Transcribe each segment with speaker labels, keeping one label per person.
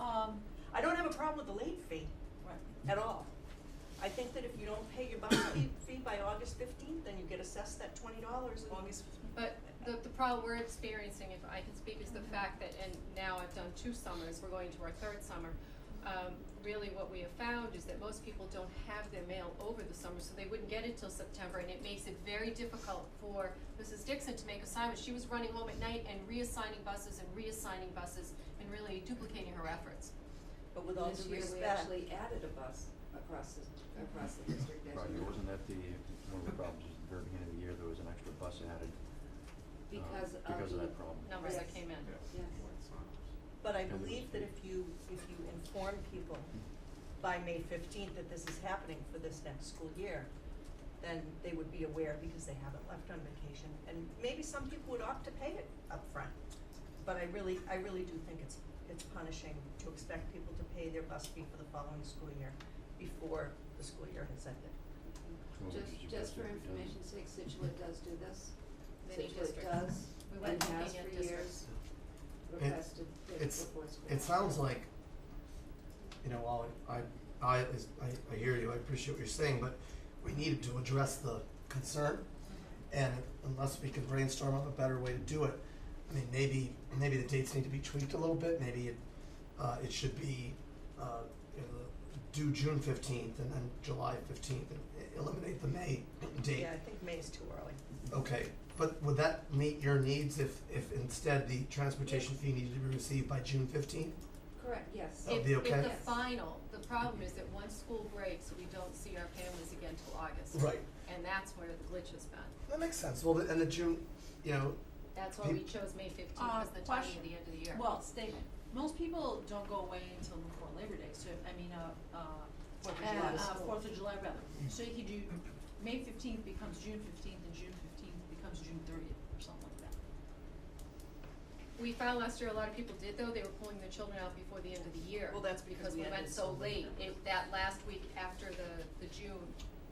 Speaker 1: Um, I don't have a problem with the late fee at all. I think that if you don't pay your bus fee, fee by August fifteenth, then you get assessed that twenty dollars August.
Speaker 2: But the, the problem we're experiencing, if I can speak, is the fact that, and now I've done two summers, we're going to our third summer. Um, really what we have found is that most people don't have their mail over the summer, so they wouldn't get it till September, and it makes it very difficult for Mrs. Dixon to make assignments. She was running home at night and reassigning buses and reassigning buses and really duplicating her efforts.
Speaker 1: But with all due
Speaker 3: This year, we
Speaker 1: respect,
Speaker 3: actually added a bus across the, across the district as
Speaker 4: Right,
Speaker 3: you
Speaker 4: there
Speaker 3: know,
Speaker 4: wasn't that the, one of the problems was at the very beginning of the year, there was an extra bus added. uh,
Speaker 3: because of the.
Speaker 4: Because of that problem.
Speaker 2: Numbers that
Speaker 3: Yes.
Speaker 2: came in.
Speaker 3: Yes.
Speaker 1: but I
Speaker 4: And it
Speaker 1: believe
Speaker 4: was-
Speaker 1: that if you, if you inform people by May fifteenth that this is happening for this next school year, then they would be aware because they haven't left on vacation, and maybe some people would opt to pay it upfront. But I really, I really do think it's, it's punishing to expect people to pay their bus fee for the following school year before the school year has ended.
Speaker 4: Well, we
Speaker 3: Just,
Speaker 4: should
Speaker 3: just
Speaker 4: suggest
Speaker 3: for
Speaker 4: that we don't.
Speaker 3: information's sake, Situate does do this.
Speaker 2: Many districts.
Speaker 3: Situate does,
Speaker 2: We went
Speaker 3: and
Speaker 2: looking
Speaker 3: has
Speaker 2: at
Speaker 3: for
Speaker 2: districts.
Speaker 3: years requested this
Speaker 5: it's-
Speaker 3: before school.
Speaker 5: It sounds like, you know, while I, I, is- I, I hear you, I appreciate what you're saying, but we needed to address the concern. And unless we can brainstorm on a better way to do it, I mean, maybe, maybe the dates need to be tweaked a little bit, maybe it, uh, it should be, uh, you know, due June fifteenth and then July fifteenth, and eliminate the May date.
Speaker 1: Yeah, I think May is too early.
Speaker 5: Okay, but would that meet your needs if, if instead the transportation fee needed to be received by June fifteenth?
Speaker 3: Correct, yes.
Speaker 5: Oh. That'll be
Speaker 2: If,
Speaker 5: okay?
Speaker 2: if the
Speaker 3: Yes.
Speaker 2: final, the problem is that once school breaks, we don't see our families again till August.
Speaker 5: Right.
Speaker 2: And that's where the glitch has been.
Speaker 5: That makes sense. Well, and the June, you know,
Speaker 2: That's why we chose May fifteenth
Speaker 6: Uh,
Speaker 2: as the timing
Speaker 6: question.
Speaker 2: of the end of the year.
Speaker 6: Well, they, most people don't go away until before Labor Day, so, I mean, uh, uh,
Speaker 1: Fourth of
Speaker 6: uh,
Speaker 1: July
Speaker 6: uh,
Speaker 1: school.
Speaker 6: Fourth of July rather. So you could do, May fifteenth becomes June fifteenth, and June fifteenth becomes June thirtieth, or something like that.
Speaker 2: We found last year, a lot of people did though, they were pulling their children out before the end of the year.
Speaker 1: Well, that's because we
Speaker 2: went
Speaker 1: ended so
Speaker 2: so late,
Speaker 1: late.
Speaker 2: it, that last week after the, the June,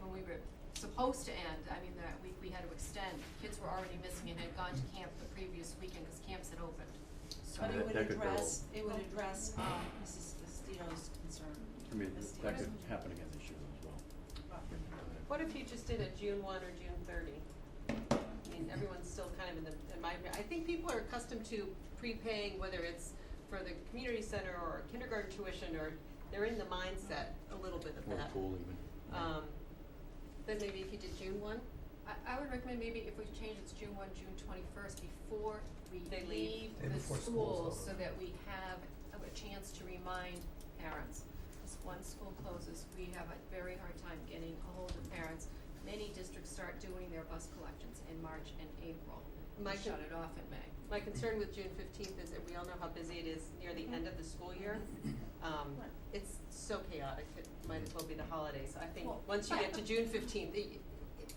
Speaker 2: when we were supposed to end, I mean, that week we had to extend. Kids were already missing and had gone to camp the previous weekend, cause camps had opened.
Speaker 6: But it
Speaker 4: mean, that-
Speaker 6: would
Speaker 4: that could go-
Speaker 6: address, it would address, um, Mrs. Estino's concern.
Speaker 4: I mean,
Speaker 6: Ms.
Speaker 4: that could
Speaker 6: Stino's.
Speaker 4: happen again this year as well.
Speaker 7: What if you just did a June one or June thirty? I mean, everyone's still kind of in the, in my, I think people are accustomed to prepaying, whether it's for the community center or kindergarten tuition, or they're in the mindset a little bit of
Speaker 4: Or
Speaker 7: that.
Speaker 4: pool even.
Speaker 7: Um, then maybe if you did June one,
Speaker 2: I, I would recommend maybe if we change it's June one, June twenty-first, before we
Speaker 7: They
Speaker 2: leave
Speaker 7: leave.
Speaker 5: Day
Speaker 2: the
Speaker 5: before school's
Speaker 2: schools,
Speaker 5: over.
Speaker 2: so that we have a a chance to remind parents. Because one school closes, we have a very hard time getting a hold of parents. Many districts start doing their bus collections in March and April, and
Speaker 7: My
Speaker 2: shut
Speaker 7: con-
Speaker 2: it off in May.
Speaker 7: my concern with June fifteenth is that we all know how busy it is near the end of the school year. Um,
Speaker 6: Right.
Speaker 7: it's so chaotic, it might as well be the holidays. I think,
Speaker 6: Well-
Speaker 7: once you get to June fifteenth, you,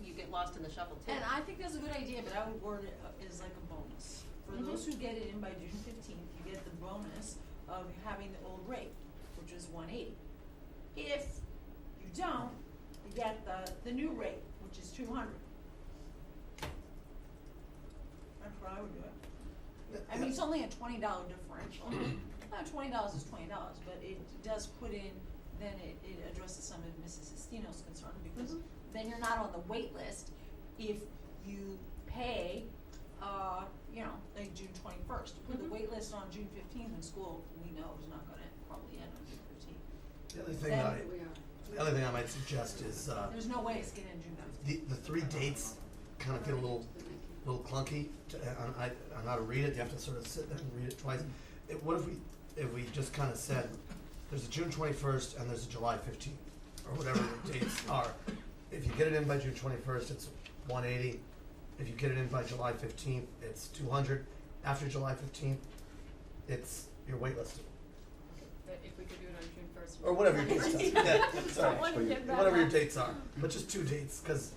Speaker 7: you get lost in the shuffle too.
Speaker 6: And I think that's a good idea, but I would word it uh, as like a bonus. For
Speaker 2: Mhm.
Speaker 6: those who get it in by June fifteenth, you get the bonus of having the old rate, which is one eighty. If you don't, you get the, the new rate, which is two hundred. That's what I would do it. I mean, it's only a twenty dollar differential. Now, twenty dollars is twenty dollars, but it does put in, then it, it addresses some of Mrs. Estino's concern, because then you're not on the wait list if you pay, uh, you know, like June twenty-first. Put the
Speaker 7: Mhm.
Speaker 6: wait list on June fifteenth, and school, we know is not gonna probably end on June fifteenth.
Speaker 5: the other thing
Speaker 6: Then
Speaker 5: I,
Speaker 3: We are.
Speaker 5: the other thing I might suggest is, uh,
Speaker 6: There's no way it's getting in June fifteenth.
Speaker 5: the, the three dates kind of get a little, little clunky, to, and I, and how to read it, you have to sort of sit there and read it twice. It, what if we, if we just kind of said, there's a June twenty-first and there's a July fifteenth, or whatever the dates are. If you get it in by June twenty-first, it's one eighty, if you get it in by July fifteenth, it's two hundred, after July fifteenth, it's, you're waitlisted,
Speaker 2: But if we could do it on June first.
Speaker 5: or whatever your dates are, yeah, sorry.
Speaker 4: But you-
Speaker 5: And whatever your dates are, but just two dates, because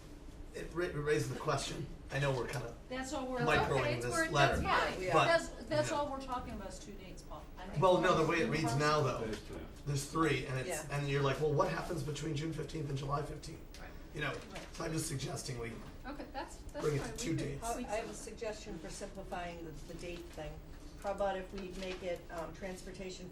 Speaker 5: it ra- it raises the question. I know we're kind of,
Speaker 6: That's all we're.
Speaker 5: Micro- microing
Speaker 2: Okay, it's
Speaker 5: this
Speaker 2: worth-
Speaker 5: letter,
Speaker 6: Yeah,
Speaker 2: That's fine.
Speaker 5: but-
Speaker 6: that's, that's
Speaker 5: yeah.
Speaker 6: all we're talking about is two dates, Paul. I think
Speaker 5: well,
Speaker 6: we're-
Speaker 5: no, the way it reads now though,
Speaker 4: Those two.
Speaker 5: there's three, and it's,
Speaker 1: Yeah.
Speaker 5: and you're like, well, what happens between June fifteenth and July fifteenth?
Speaker 2: Right.
Speaker 5: You know, so I'm just suggesting we,
Speaker 2: Okay, that's, that's fine,
Speaker 5: Bring
Speaker 2: we
Speaker 5: it to two
Speaker 2: could
Speaker 5: days.
Speaker 1: How-
Speaker 2: tweak
Speaker 1: I have
Speaker 2: some-
Speaker 1: a suggestion for simplifying the, the date thing. How about if we make it, um, transportation